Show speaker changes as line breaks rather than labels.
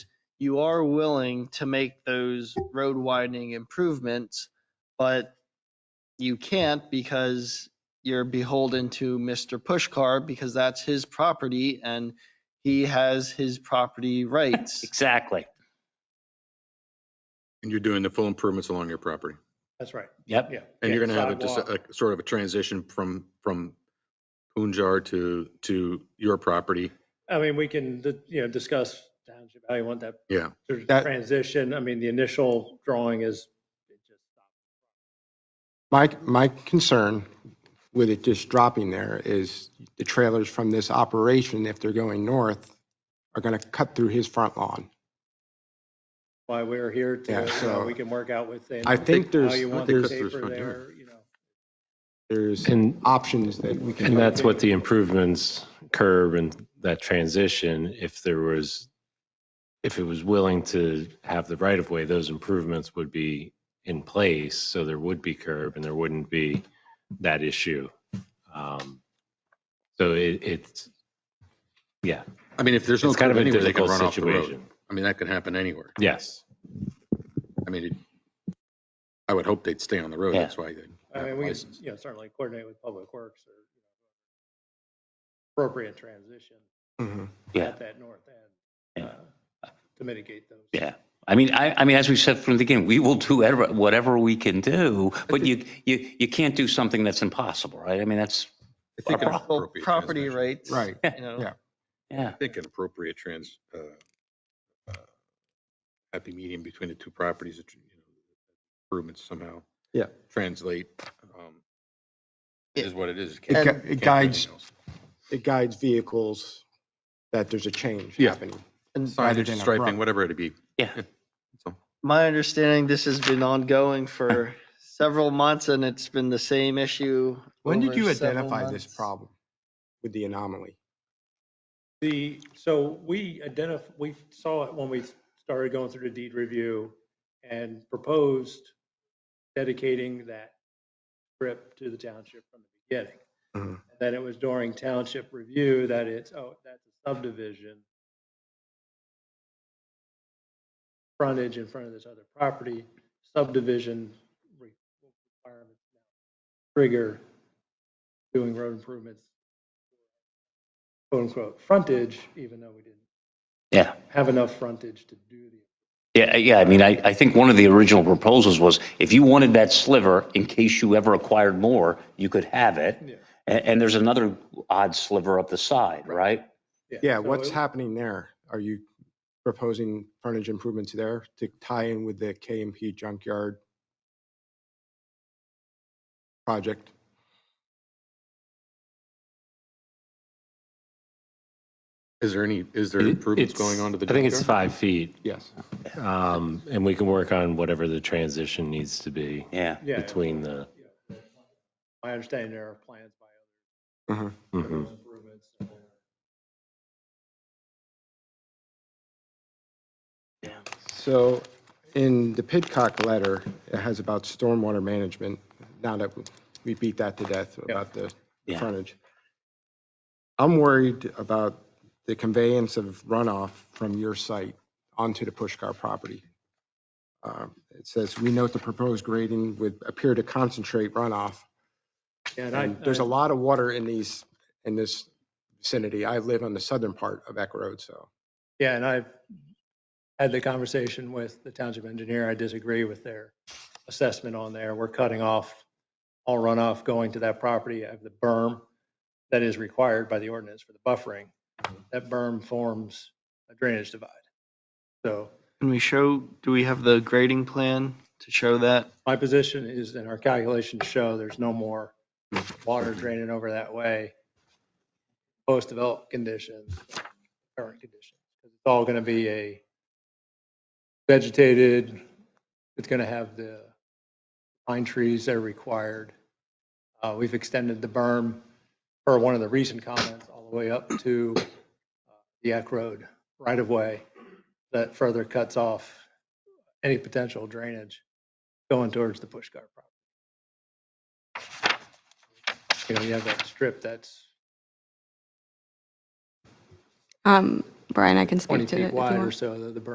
you are willing to make those road widening improvements, but you can't because you're beholden to Mr. Pushkar because that's his property and he has his property rights.
Exactly.
And you're doing the full improvements along your property.
That's right,
Yep.
yeah.
And you're
Yeah,
going to have a, just
sidewalk.
a, a sort of a transition from, from Punjar to, to your property.
I mean, we can, di- you know, discuss township, how you want that.
Yeah.
sort of
That-
Transition, I mean, the initial drawing is. it just
My, my concern with it just dropping there is the trailers from this operation, if they're going north, are going to cut through his front lawn.
Why we're here to,
Yeah,
you know,
so-
we can work out with. them
I think
How
there's-
you
I
want
think
the
there's-
paper there, you know.
There's
And,
options that we can.
and that's what the improvements curb and that transition, if there was, if it was willing to have the right of way, those improvements would be in place. So there would be curb and there wouldn't be that issue. Um, So it, it's, yeah,
I mean, if there's no
it's kind of
curb
a
anywhere, they can
difficult
run off the road.
situation.
I mean, that could happen anywhere.
Yes.
I mean, it- I would hope they'd stay on the road.
Yeah.
That's why they.
I
have
mean, we could,
license.
you know, certainly coordinate with Public Works or. you know, Appropriate transition
Mhm.
Yeah.
at that north end.
Yeah.
uh, To mitigate those.
Yeah. I mean, I, I mean, as we said from the beginning, we will do whatever, whatever we can do, but you, you, you can't do something that's impossible, right? I mean, that's,
I think an
Well,
appropriate
Property
transaction-
rights.
Right.
You know.
Yeah.
yeah.
I think an appropriate trans, uh, uh, happy medium between the two properties, you know, improvements somehow.
Yeah.
Translate, um, is what it is.
It
Can't-
gu-
can't
it
do
guides-
anything else.
It guides vehicles that there's a change
Yeah.
happening. rather than
Signage,
a
striping,
front.
whatever it'd be.
Yeah.
So,
My understanding, this has been ongoing for several months and it's been the same issue.
When did
over
you
several
identify this
months.
problem with the anomaly?
The, so we identif, we saw it when we started going through the deed review and proposed dedicating that strip to the township from the beginning.
Mhm.
Then it was during township review that it's, oh, that's a subdivision. Frontage in front of this other property, subdivision re- requirements now trigger doing road improvements quote unquote frontage, even though we didn't
Yeah.
have enough frontage to do the.
Yeah, yeah, I mean, I, I think one of the original proposals was if you wanted that sliver, in case you ever acquired more, you could have it.
Yeah.
And, and there's another odd sliver up the side, right?
Yeah,
so
what's
it-
happening there? Are you proposing frontage improvements there to tie in with the KMP junkyard project?
Is there any, is there
It-
improvements
it's-
going on to the?
I think it's
junkyard?
five feet.
Yes.
Um, and we can work on whatever the transition needs to be
Yeah.
Yeah,
between the,
I understand there are plans by
mhm.
other improvements. and there are-
So in the Pidcock letter, it has about stormwater management. Now that we beat that to death about the
Yeah.
frontage. I'm worried about the conveyance of runoff from your site onto the Pushkar property. Um, It says, we note the proposed grading would appear to concentrate runoff.
And I,
And there's a lot of water in these, in this vicinity. I live on the southern part of Eck Road, so.
yeah, and I've had the conversation with the township engineer. I disagree with their assessment on there. We're cutting off all runoff going to that property. I have the berm that is required by the ordinance for the buffering. That berm forms a drainage divide. So
Can we show, do we have the grading plan to show that?
My position is, and our calculations show, there's no more water draining over that way, post-developed conditions, current conditions. It's all going to be a vegetated, it's going to have the pine trees that are required. Uh, We've extended the berm, per one of the recent comments, all the way up to uh, the Eck Road right-of-way that further cuts off any potential drainage going towards the push cart property. You know, you have that strip that's
Um, Brian, I can
20
speak to it.
feet
if you
wide
want.
or so, the the berm